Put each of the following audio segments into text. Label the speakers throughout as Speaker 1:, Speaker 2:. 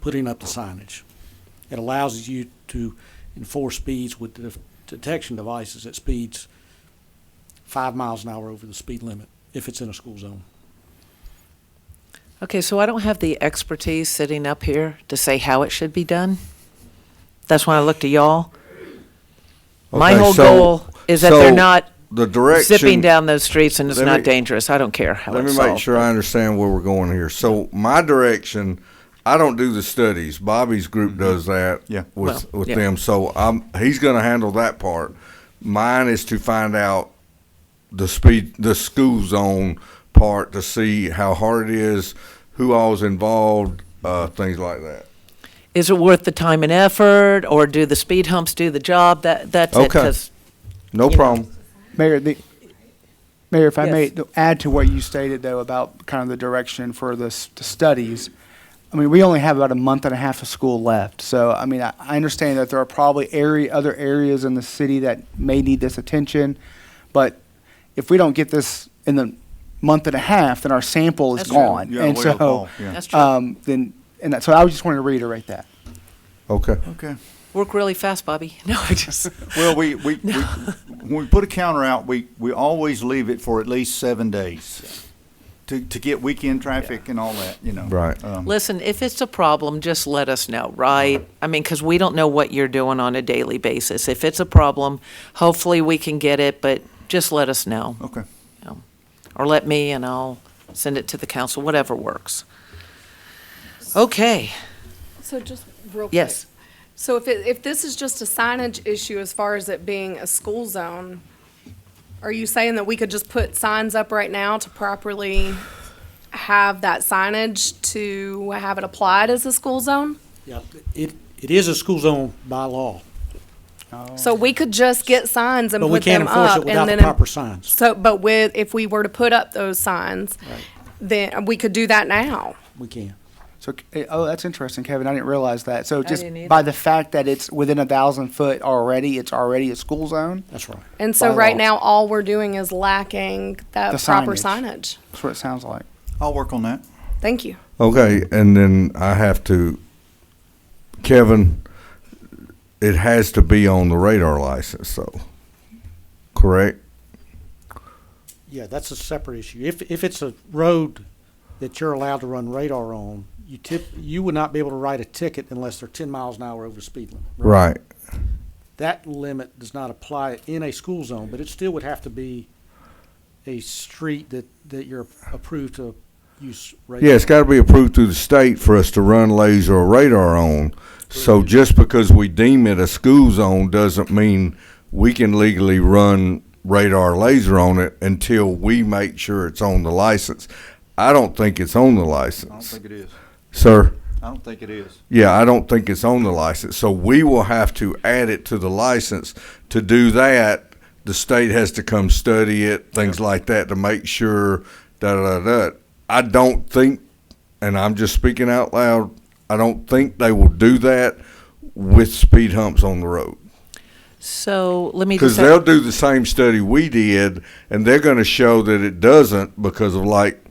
Speaker 1: putting up the signage. It allows you to enforce speeds with the detection devices at speeds five miles an hour over the speed limit if it's in a school zone.
Speaker 2: Okay, so I don't have the expertise sitting up here to say how it should be done. That's why I look to y'all. My
Speaker 3: Okay,
Speaker 2: whole
Speaker 3: so-
Speaker 2: goal is that they're
Speaker 3: so
Speaker 2: not
Speaker 3: the direction,
Speaker 2: zipping down those streets and it's
Speaker 3: Let
Speaker 2: not
Speaker 3: me-
Speaker 2: dangerous. I don't care how
Speaker 3: Let
Speaker 2: it's
Speaker 3: me
Speaker 2: solved.
Speaker 3: make sure I understand where we're going here. So my direction, I don't do the studies. Bobby's group does that.
Speaker 4: Yeah.
Speaker 3: With
Speaker 2: Well,
Speaker 3: with
Speaker 2: yeah.
Speaker 3: them, so I'm he's going to handle that part. Mine is to find out the speed, the school zone part to see how hard it is, who all's involved, uh, things like that.
Speaker 2: Is it worth the time and effort, or do the speed humps do the job? That that's it.
Speaker 3: Okay.
Speaker 2: 'cause-
Speaker 3: No
Speaker 2: You know.
Speaker 3: problem.
Speaker 4: Mayor, the, Mayor, if I may
Speaker 2: Yes.
Speaker 4: th- add to what you stated though about kind of the direction for the, s- the studies. I mean, we only have about a month and a half of school left. So, I mean, I, I understand that there are probably area, other areas in the city that may need this attention. But if we don't get this in the month and a half, then our sample is
Speaker 2: That's true.
Speaker 4: gone. And And so, so,
Speaker 2: That's true.
Speaker 4: um, then, and that, so I was just wanted to reiterate that.
Speaker 3: Okay.
Speaker 4: Okay.
Speaker 2: Work really fast, Bobby. No, I just.
Speaker 5: Well, we, we, we, when we put a counter out, we, we always leave it for at least seven days to, to get weekend traffic and all that, you know.
Speaker 3: Right.
Speaker 5: Um,
Speaker 2: Listen, if it's a problem, just let us know, right? I mean, because we don't know what you're doing on a daily basis. If it's a problem, hopefully we can get it, but just let us know.
Speaker 5: Okay.
Speaker 2: you know. Or let me and I'll send it to the council, whatever works. Okay,
Speaker 6: So just real quick.
Speaker 2: Yes.
Speaker 6: So if it, if this is just a signage issue as far as it being a school zone, are you saying that we could just put signs up right now to properly have that signage to have it applied as a school zone?
Speaker 1: Yeah, it, it is a school zone by law,
Speaker 6: So we could just get signs and
Speaker 1: but we
Speaker 6: put
Speaker 1: can't
Speaker 6: them
Speaker 1: enforce
Speaker 6: up
Speaker 1: it
Speaker 6: and
Speaker 1: without the
Speaker 6: then.
Speaker 1: proper signs.
Speaker 6: So, but with, if we were to put up those signs, then we could do that now.
Speaker 1: We can.
Speaker 4: So, eh, oh, that's interesting, Kevin. I didn't realize that. So just
Speaker 2: didn't either.
Speaker 4: by the fact that it's within a thousand foot already, it's already a school zone.
Speaker 1: That's right.
Speaker 6: And so
Speaker 4: By
Speaker 6: right
Speaker 4: law.
Speaker 6: now, all we're doing is lacking
Speaker 4: The
Speaker 6: that proper
Speaker 4: signage.
Speaker 6: signage.
Speaker 4: That's what it sounds like.
Speaker 5: I'll work on that.
Speaker 6: Thank you.
Speaker 3: Okay, and then I have to, Kevin, it has to be on the radar license, though, correct?
Speaker 1: Yeah, that's a separate issue. If, if it's a road that you're allowed to run radar on, you tip, you would not be able to write a ticket unless they're ten miles an hour over the speed limit.
Speaker 3: Right.
Speaker 1: That limit does not apply in a school zone, but it still would have to be a street that, that you're approved to use radar.
Speaker 3: Yeah, it's got to be approved through the state for us to run laser or radar on. So just because we deem it a school zone doesn't mean we can legally run radar laser on it until we make sure it's on the license. I don't think it's on the
Speaker 5: I don't
Speaker 3: license.
Speaker 5: think it is.
Speaker 3: Sir?
Speaker 5: I don't think it is.
Speaker 3: Yeah, I don't think it's on the license. So we will have to add it to the license. To do that, the state has to come study it, things like that, to make sure. Da da da. da. I don't think, and I'm just speaking out loud. I don't think they will do that with speed humps on the road
Speaker 2: so let me
Speaker 3: because
Speaker 2: just.
Speaker 3: they'll do the same study we did, and they're going to show that it doesn't because of like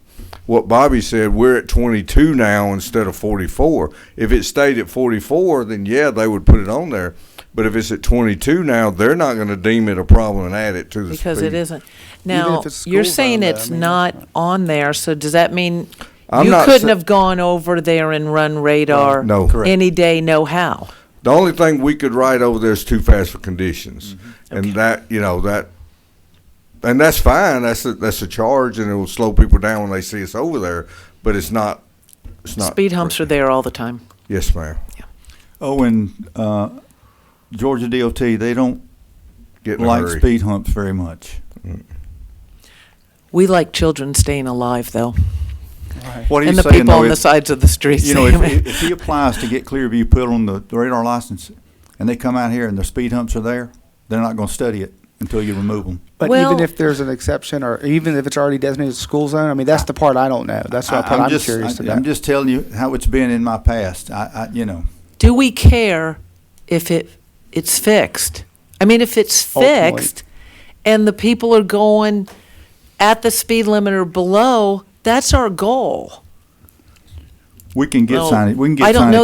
Speaker 3: what Bobby said. We're at 22 now instead of 44. If it stayed at 44, then yeah, they would put it on there. But if it's at 22 now, they're not going to deem it a problem and add it to the
Speaker 2: Because
Speaker 3: speed.
Speaker 2: it isn't.
Speaker 4: Even
Speaker 2: Now,
Speaker 4: if it's
Speaker 2: you're
Speaker 4: school
Speaker 2: saying
Speaker 4: zone, though, I
Speaker 2: it's
Speaker 4: mean,
Speaker 2: not on there, so does that mean
Speaker 3: I'm
Speaker 2: you
Speaker 3: not
Speaker 2: couldn't
Speaker 3: sa-
Speaker 2: have gone over there and run radar?
Speaker 3: No. Correct.
Speaker 2: Any day, no how?
Speaker 3: The only thing we could write over there is too fast for conditions,
Speaker 2: Mm-hmm.
Speaker 3: and that you know that, and that's fine. That's a, that's a charge, and it will slow people down when they see us over there. But it's not. It's not
Speaker 2: Speed humps are there all the time.
Speaker 3: Yes, ma'am.
Speaker 5: Oh, and, uh, Georgia DOT, they don't
Speaker 3: Get in a
Speaker 5: like
Speaker 3: hurry.
Speaker 5: speed humps very much.
Speaker 2: We like children staying alive, though,
Speaker 5: What are you
Speaker 2: and the
Speaker 5: saying
Speaker 2: people
Speaker 5: though?
Speaker 2: on the
Speaker 5: If-
Speaker 2: sides of the streets.
Speaker 5: You know, if, if- if he applies to get Clearview put on the radar license and they come out here and their speed humps are there, they're not gonna study it until you remove them.
Speaker 4: But
Speaker 2: Well-
Speaker 4: even if there's an exception, or even if it's already designated school zone, I mean, that's the part I don't know. That's what
Speaker 5: I-
Speaker 4: I'm,
Speaker 5: just-
Speaker 4: curious
Speaker 5: I-
Speaker 4: about.
Speaker 5: I'm just telling you how it's been in my past. I, I, you know.
Speaker 2: do we care if it it's fixed? I mean, if it's
Speaker 4: Ultimately.
Speaker 2: fixed and the people are going at the speed limit or below, that's our goal.
Speaker 5: We can get
Speaker 2: Well,
Speaker 5: signage, we can get signage.
Speaker 2: I don't know